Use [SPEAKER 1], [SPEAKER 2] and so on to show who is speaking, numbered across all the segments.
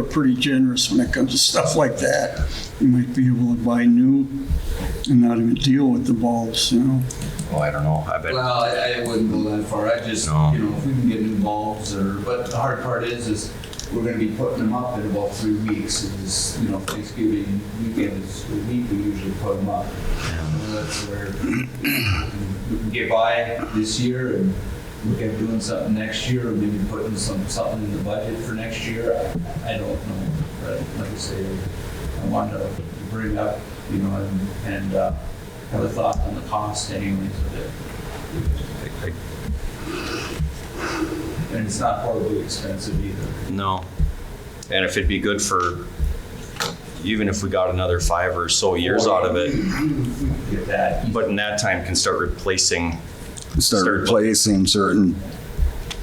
[SPEAKER 1] are pretty generous when it comes to stuff like that. You might be able to buy new and not even deal with the bulbs, you know?
[SPEAKER 2] Well, I don't know. I bet.
[SPEAKER 3] Well, I, I wouldn't go that far. I just,
[SPEAKER 2] No.
[SPEAKER 3] you know, if we can get new bulbs or, but the hard part is, is we're gonna be putting them up in about three weeks. It's, you know, Thanksgiving weekend is the week we usually put them up. So That's where we can get by this year and look at doing something next year or maybe putting some, something in the budget for next year. I, I don't know, but like I say, I wanted to bring up, you know, and, and, uh, have a thought on the cost anyways of it. And it's not horribly expensive either.
[SPEAKER 2] No. And if it'd be good for, even if we got another five or so years out of it,
[SPEAKER 3] Get that.
[SPEAKER 2] but in that time can start replacing
[SPEAKER 4] start
[SPEAKER 2] Start-
[SPEAKER 4] replacing certain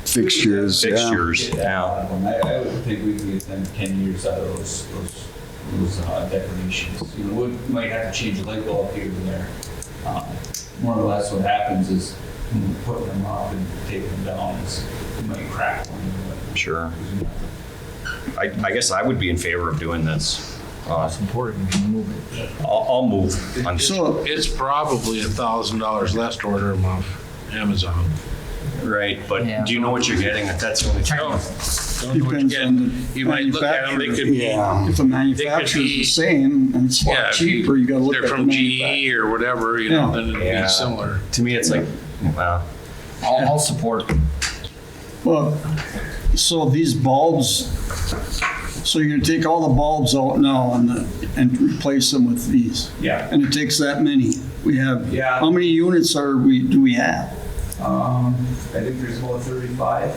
[SPEAKER 4] fixtures. yeah.
[SPEAKER 2] fixtures.
[SPEAKER 3] Get that out of them. I, I would think we could get them ten years out of those, those, those uh, decorations. You know, we might have to change a light bulb here and there. Um, More or less what happens is when we're putting them up and taking them down, it's, it might crack one.
[SPEAKER 2] Yeah, sure. I, I guess I would be in favor of doing this. Uh,
[SPEAKER 5] It's important to move it.
[SPEAKER 2] I'll, I'll move on.
[SPEAKER 1] So,
[SPEAKER 6] It's probably a thousand dollars less to order them off Amazon.
[SPEAKER 2] Right, but do you know what you're getting? That's the only thing.
[SPEAKER 6] Don't know what you
[SPEAKER 1] depends
[SPEAKER 6] get.
[SPEAKER 1] on the
[SPEAKER 6] You might look at them, they
[SPEAKER 1] manufacturer.
[SPEAKER 6] could be, yeah,
[SPEAKER 4] Yeah.
[SPEAKER 1] If the manufacturer's
[SPEAKER 6] be-
[SPEAKER 1] the same and it's a lot
[SPEAKER 6] if you-
[SPEAKER 1] cheaper, you gotta look at
[SPEAKER 6] they're
[SPEAKER 1] the
[SPEAKER 6] from E.
[SPEAKER 1] manufacturer.
[SPEAKER 6] GE or whatever, you know,
[SPEAKER 1] Yeah.
[SPEAKER 6] then it'd
[SPEAKER 2] Yeah.
[SPEAKER 6] be similar.
[SPEAKER 2] To me, it's like, wow.
[SPEAKER 5] I'll, I'll support.
[SPEAKER 1] Well, so these bulbs, so you're gonna take all the bulbs out now and, the- and replace them with these?
[SPEAKER 3] Yeah.
[SPEAKER 1] And it takes that many? We have,
[SPEAKER 3] Yeah.
[SPEAKER 1] how many units are we, do we have?
[SPEAKER 3] Um, I think there's about thirty-five.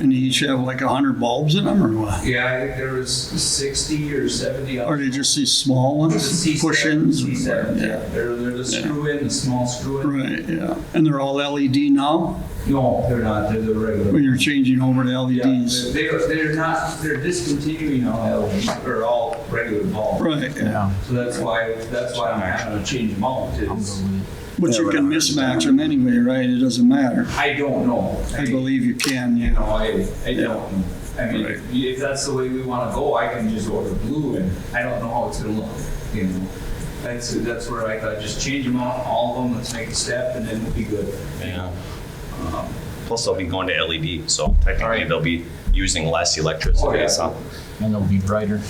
[SPEAKER 1] And they each have like 100 bulbs in them or what?
[SPEAKER 3] Yeah, I think there was sixty or seventy.
[SPEAKER 1] Or they just these small ones, push-ins?
[SPEAKER 3] C7, yeah. They're, they're the screw in, the small screw in.
[SPEAKER 1] Right, yeah. And they're all LED now?
[SPEAKER 3] No, they're not, they're the
[SPEAKER 1] When
[SPEAKER 3] regular.
[SPEAKER 1] you're changing over to E
[SPEAKER 3] Yeah,
[SPEAKER 1] LEDs?
[SPEAKER 3] They're, they're not, they're discontinuing all LEDs, or all regular bulbs.
[SPEAKER 1] Right, yeah.
[SPEAKER 3] So that's why, that's why I'm having to change them out, is,
[SPEAKER 1] But you can mismatch them anyway, right? It doesn't matter.
[SPEAKER 3] I don't know.
[SPEAKER 1] I believe you can,
[SPEAKER 3] You
[SPEAKER 1] yeah.
[SPEAKER 3] know, I, I don't, know. I mean, if- if that's the way we wanna go, I can just order blue, and I don't know how it's gonna look, you know? That's, that's where I thought, just change them out, all of them, let's make a step, and then we'll be good.
[SPEAKER 2] Yeah. Plus, they'll be going to LED, so technically
[SPEAKER 3] Alright.
[SPEAKER 2] they'll be using less
[SPEAKER 3] Oh, yeah.
[SPEAKER 2] electricity. So,
[SPEAKER 5] And it'll be brighter.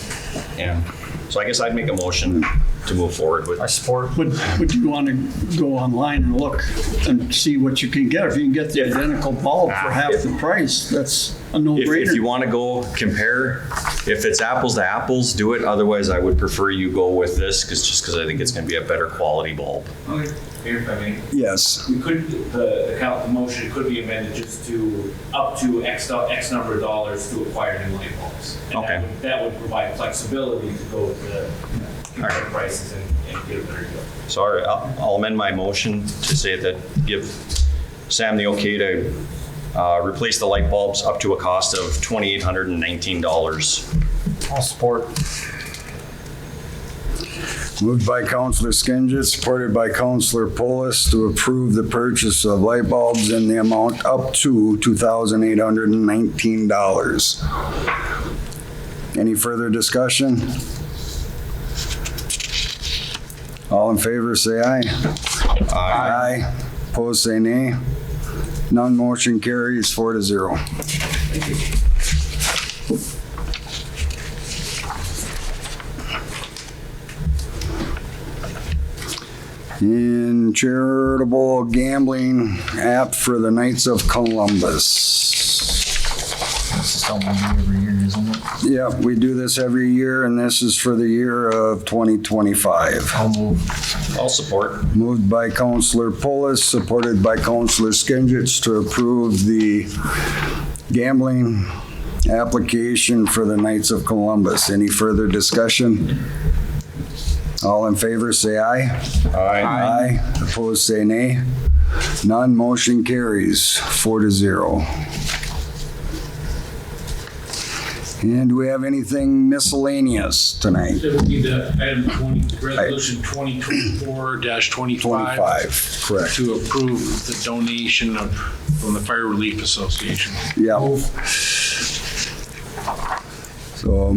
[SPEAKER 2] yeah. So I guess I'd make a motion to move forward with.
[SPEAKER 5] I support.
[SPEAKER 1] But, but you want to go online and look and see what you can get. If you can get the identical bulb for half the price, that's a
[SPEAKER 2] If, if you
[SPEAKER 1] no-brainer.
[SPEAKER 2] want to go compare, if it's apples to apples, do it. Otherwise, I would prefer you go with this because just because I think it's going to be a better quality bulb.
[SPEAKER 3] Okay, here, if I may.
[SPEAKER 4] Yes.
[SPEAKER 7] We could, the, the count, the motion could be amended just to up to X, do- X number of dollars to acquire new light bulbs. And that
[SPEAKER 2] Okay.
[SPEAKER 7] would- That would provide flexibility to go with the
[SPEAKER 2] All
[SPEAKER 7] current prices and, and get a better deal.
[SPEAKER 2] So I- I'll, I'll amend my motion to say that give Sam the okay to uh, replace the light bulbs up to a cost of $2,819.
[SPEAKER 5] I'll support.
[SPEAKER 4] Moved by Counselor Skinsich, supported by Counselor Polis to approve the purchase of light bulbs in the amount up to $2,819. Any further discussion? All in favor, say aye. Aye. Opposed, say nay. None motion carries four to zero. in charitable gambling app for the Knights of Columbus.
[SPEAKER 5] This is something we do every year, isn't it?
[SPEAKER 4] Yep, we do this every year, and this is for the year of 2025.
[SPEAKER 5] I'll move.
[SPEAKER 2] I'll support.
[SPEAKER 4] Moved by Counselor Polis, supported by Counselor Skinsich to approve the gambling application for the Knights of Columbus. Any further discussion? All in favor, say aye. Aye. Opposed, say nay. None, motion carries four to zero. And do we have anything miscellaneous tonight?
[SPEAKER 6] It would be the item twenty, resolution twenty twenty-four twenty-five
[SPEAKER 4] 25, correct.
[SPEAKER 6] to approve the donation of, from the Fire Relief Association.
[SPEAKER 4] Yeah. So